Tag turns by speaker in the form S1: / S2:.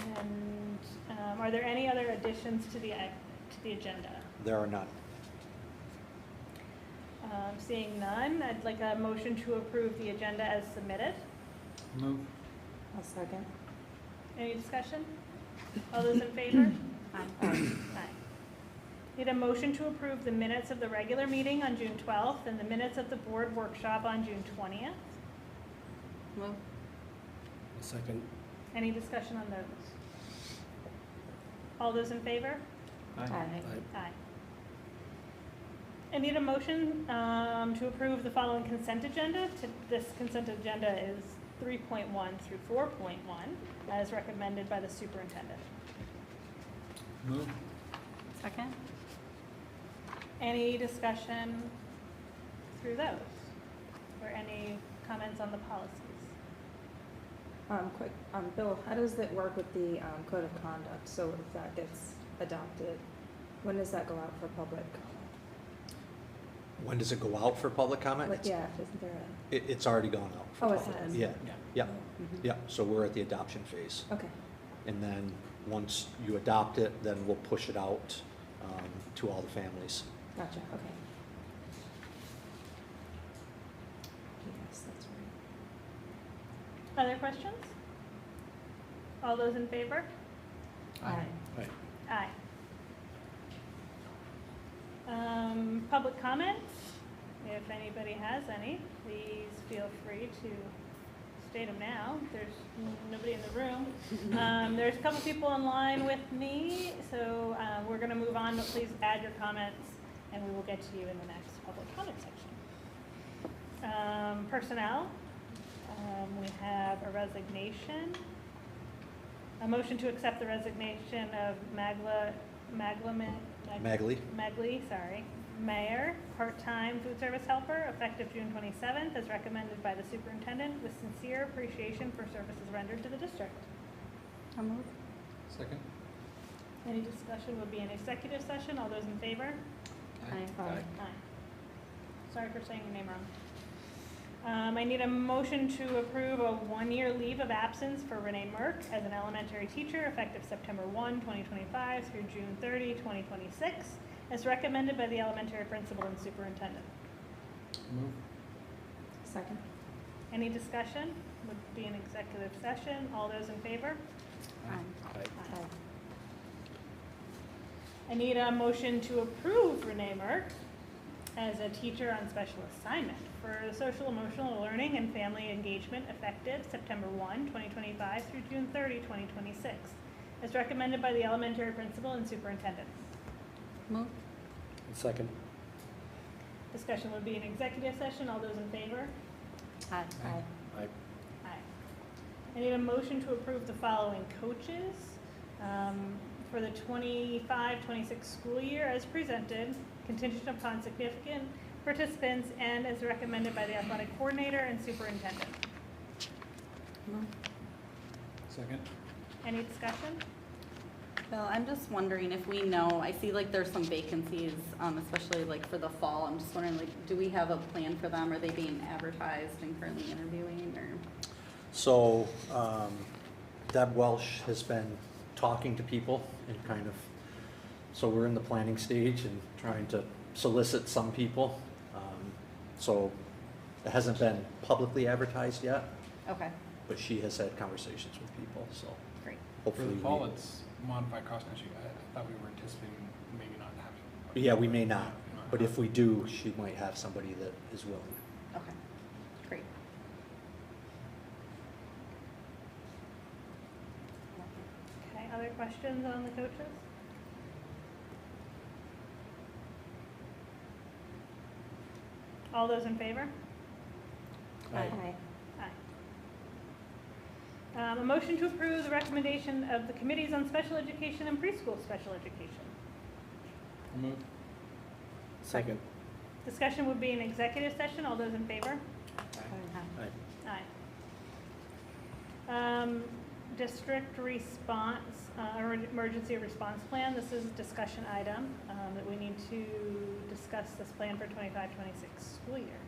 S1: um, Are there any other additions to the, ag- to the agenda?
S2: There are none.
S1: Um, Seeing none, I'd like a motion to approve the agenda as submitted.
S3: Move.
S4: I'll second.
S1: Any discussion? All those in favor?
S4: Aye.
S1: Aye. Need a motion to approve the minutes of the regular meeting on June 12th and the minutes of the board workshop on June 20th.
S4: Move.
S3: Second.
S1: Any discussion on those? All those in favor?
S4: Aye.
S1: Aye. I need a motion um, to approve the following consent agenda. To- This consent agenda is 3.1 through 4.1, as recommended by the superintendent.
S3: Move.
S4: Second?
S1: Any discussion through those? Or any comments on the policies?
S4: Um, quick, um, Bill, how does it work with the, um, code of conduct? So if that gets adopted, when does that go out for public?
S2: When does it go out for public comment?
S4: Like, yeah, isn't there
S2: It, it's already gone out for
S4: Oh, it
S2: public.
S4: has.
S2: Yeah,
S3: Yeah.
S4: a?
S2: yeah,
S4: Mhm.
S2: yeah, so we're at the adoption phase.
S4: Okay,
S2: And then, once you adopt it, then we'll push it out um, to all the families.
S4: gotcha, okay. Yes, that's right.
S1: Other questions? All those in favor?
S3: Aye.
S1: Aye. Um, public comments, if anybody has any, please feel free to state them now. There's nobody in the room. Um, there's a couple people online with me, so, uh, we're gonna move on, but please add your comments and we will get to you in the next public comment section. Um, personnel, um, we have a resignation. A motion to accept the resignation of Magla, Maglaman.
S2: Magley,
S1: Megley, sorry, mayor, part-time food service helper, effective June twenty-seventh, as recommended by the superintendent, with sincere appreciation for services rendered to the district.
S4: I'll move.
S3: Second.
S1: Any discussion would be an executive session, all those in favor?
S4: Aye.
S1: Aye. Sorry for saying your name wrong. Um, I need a motion to approve a one-year leave of absence for Renee Merck as an elementary teacher effective September 1, 2025 through June 30, 2026, as recommended by the elementary principal and superintendent.
S3: Move.
S4: Second?
S1: Any discussion? Would be an executive session. All those in favor?
S3: Aye.
S4: Aye.
S1: I need a motion to approve Renee Merck as a teacher on special assignment for social emotional learning and family engagement effective September 1, 2025 through June 30, 2026, as recommended by the elementary principal and superintendent.
S4: Move.
S3: Second.
S1: Discussion would be an executive session. All those in favor?
S4: Aye.
S3: Aye. Aye.
S1: Aye. I need a motion to approve the following coaches um, for the 25-26 school year as presented, contingent upon significant participants and as recommended by the athletic coordinator and superintendent.
S5: Move.
S3: Second.
S1: Any discussion?
S5: Bill, I'm just wondering if we know, I see like there's some vacancies, um, especially like for the fall. I'm just wondering, like, do we have a plan for them? Are they being advertised and currently interviewing or?
S2: So um, Deb Welsh has been talking to people and kind of, so we're in the planning stage and trying to solicit some people. Um, So it hasn't been publicly advertised yet,
S5: Okay,
S2: but she has had conversations with people, so
S5: great.
S3: For
S2: hopefully.
S3: the
S2: we-
S3: fall, it's modified cost issue. I, I thought we were anticipating maybe not having.
S2: Yeah, we may not, but if we do, she might have somebody that is willing.
S5: Okay, great.
S1: Okay, other questions on the coaches? All those in favor?
S4: Aye.
S1: Aye. Um, a motion to approve the recommendation of the committees on special education and preschool special education.
S3: Move. Second.
S1: Discussion would be an executive session. All those in favor?
S2: Aye.
S1: Aye. Um, district response, uh, or emergency response plan. This is a discussion item, um, that we need to discuss this plan for 25-26 school year.